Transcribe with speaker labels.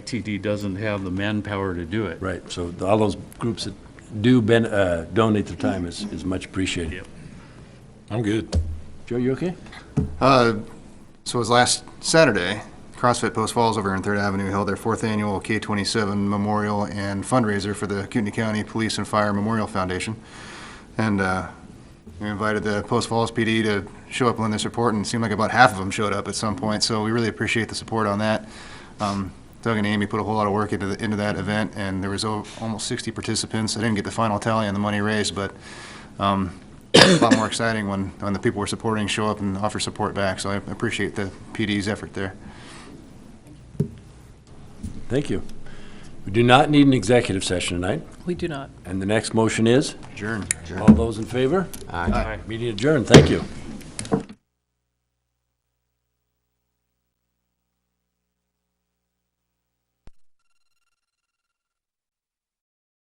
Speaker 1: YTD doesn't have the manpower to do it.
Speaker 2: Right, so the- all those groups that do ben- uh, donate their time is is much appreciated.
Speaker 1: Yep.
Speaker 3: I'm good.
Speaker 2: Joe, you okay?
Speaker 4: Uh, So it was last Saturday, CrossFit Post Falls over in Third Avenue held their fourth annual K-27 Memorial and fundraiser for the Kootenai County Police and Fire Memorial Foundation. And uh, we invited the Post Falls PD to show up and lend their support, and it seemed like about half of them showed up at some point, so we really appreciate the support on that. Um, Doug and Amy put a whole lot of work into, the- into that event, and there was o- almost 60 participants. I didn't get the final tally on the money raised, but um, a lot more exciting when, when the people we're supporting show up and offer support back, so I appreciate the PD's effort there.
Speaker 2: Thank you. We do not need an executive session tonight,
Speaker 5: We do not.
Speaker 2: and the next motion is,
Speaker 4: Adjourn.
Speaker 2: all those in favor?
Speaker 1: Aye.
Speaker 2: Meeting adjourned, thank you.